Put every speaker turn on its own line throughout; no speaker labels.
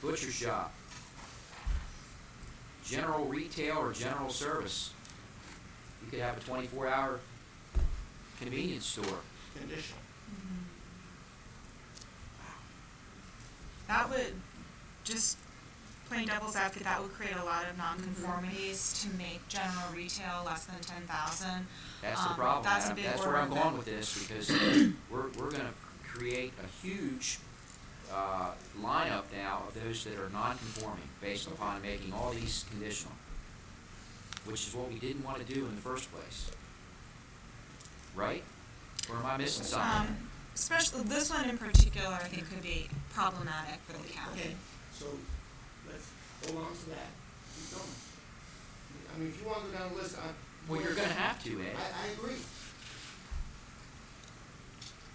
butcher shop, general retail or general service. You could have a twenty-four hour convenience store.
Conditional.
That would, just plain devil's advocate, that would create a lot of nonconformities to make general retail less than ten thousand.
That's the
Um,
problem,
that's a
Adam.
big
That's where I'm
order.
going with this, because we're, we're gonna create a huge, uh, lineup now of those that are non-conforming based upon making all these conditional, which is what we didn't wanna do in the first place. Right? Or am I missing something?
Um, especially, this one in particular, I think could be problematic for the
Okay,
county.
so let's hold on to that. Keep going. I mean, if you want to go down the list, I.
Well, you're gonna have to,
I,
Ed.
I agree.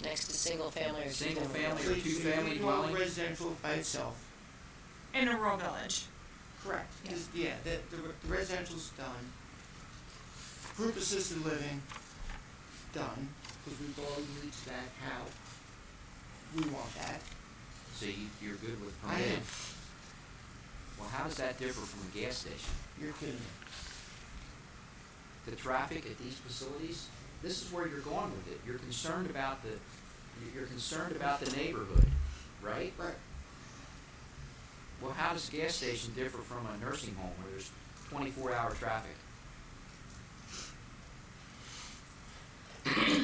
Next to single family or two
Single family or
Please,
two
if you
family
want
dwelling?
Residential by itself.
In a rural village.
Correct.
Yeah.
Just- Yeah, the, the re- the residential's done. Group assisted living, done, because we've already reached that how we want that.
So you, you're good with
I am.
permitted? Well, how does that differ from a gas station?
You're kidding me.
the traffic at these facilities, this is where you're going with it. You're concerned about the, you're concerned about the neighborhood, right?
Right,
Well, how does a gas station differ from a nursing home where there's twenty-four hour traffic?
okay.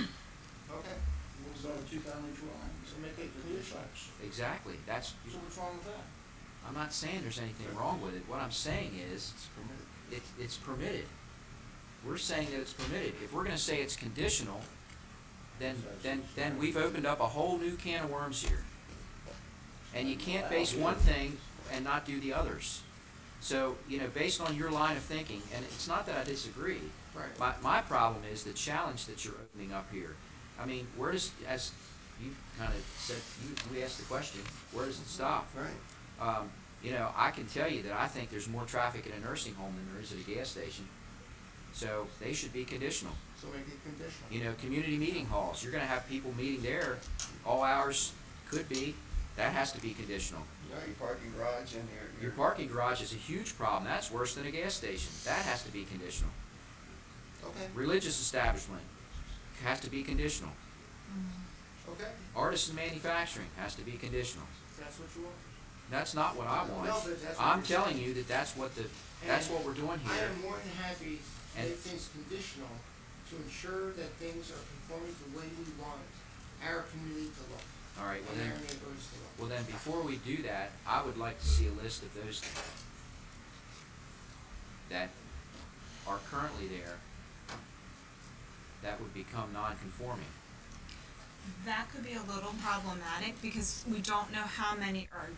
What was on two-family dwelling? So make it conditional. So
Exactly, that's,
what's wrong with that?
I'm not saying there's anything wrong with it. What I'm saying is,
It's permitted.
it, it's permitted. We're saying that it's permitted. If we're gonna say it's conditional, then, then, then we've opened up a whole new can of worms here. And you can't base one thing and not do the others. So, you know, based on your line of thinking, and it's not that I disagree,
Right.
my, my problem is the challenge that you're opening up here. I mean, where does, as you kind of said, you, you asked the question, where does it stop?
Right.
Um, you know, I can tell you that I think there's more traffic at a nursing home than there is at a gas station. So they should be conditional.
So make it conditional.
You know, community meeting halls, you're gonna have people meeting there, all hours could be, that has to be conditional.
Yeah, your parking garage and your.
Your parking garage is a huge problem, that's worse than a gas station, that has to be conditional.
Okay,
Religious establishment has to be conditional.
okay.
Artisan manufacturing has to be conditional.
That's what you want?
That's not what I want.
No, but that's what
I'm
you're
telling
saying.
you that that's what the, that's what we're doing
I
here.
am more than happy to
And-
make things conditional to ensure that things are conforming to the way we want our community to look
All right,
and
well then,
our neighbors to look.
Well, then, before we do that, I would like to see a list of those that are currently there that would become non-conforming.
That could be a little problematic because we don't know how many are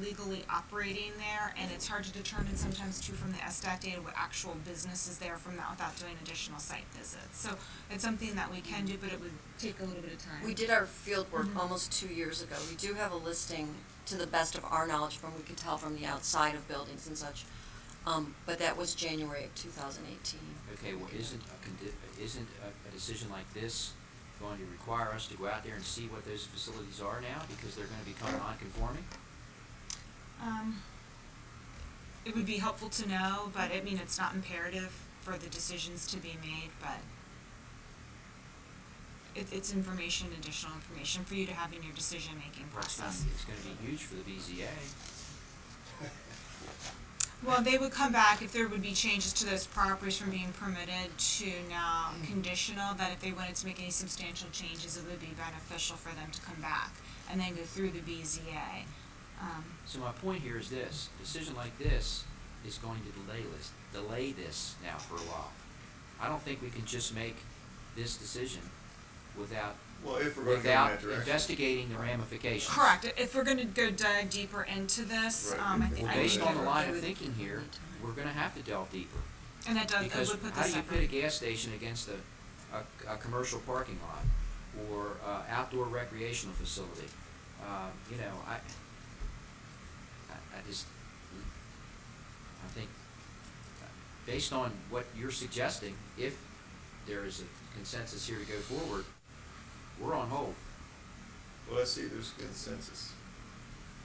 legally operating there and it's hard to determine sometimes too from the SDAT data what actual business is there from that without doing additional site visits. So it's something that we can do, but it would take a little bit of time.
We did our field work
Mhm.
almost two years ago. We do have a listing, to the best of our knowledge, from we could tell from the outside of buildings and such. Um, but that was January of two thousand eighteen.
Okay, well, isn't a condi- isn't a, a decision like this going to require us to go out there and see what those facilities are now because they're gonna become non-conforming?
Um, it would be helpful to know, but I mean, it's not imperative for the decisions to be made, but it, it's information, additional information for you to have in your decision-making
Well, It's gonna,
process.
it's gonna be huge for the BZA.
Well, they would come back if there would be changes to those properties from being permitted to now conditional, that if they wanted to make any substantial changes, it would be beneficial for them to come back and then go through the BZA. Um,
So my point here is this, decision like this is going to delay this, delay this now for a while. I don't think we can just make this decision without,
Well, if we're gonna go in
without
that direction.
investigating the ramifications.
Correct, I- if we're gonna go dive deeper into this,
Right.
um, I think,
Well,
I
based
think-
on the line
I
of
would-
thinking here, we're gonna have to delve deeper.
and that does, that
Because
would put
how
this
do you
separate.
put a gas station against a, a, a commercial parking lot or uh, outdoor recreational facility? Um, you know, I, I, I just, I think, uh, based on what you're suggesting, if there is a consensus here to go forward, we're on hold.
Well, let's see, there's consensus.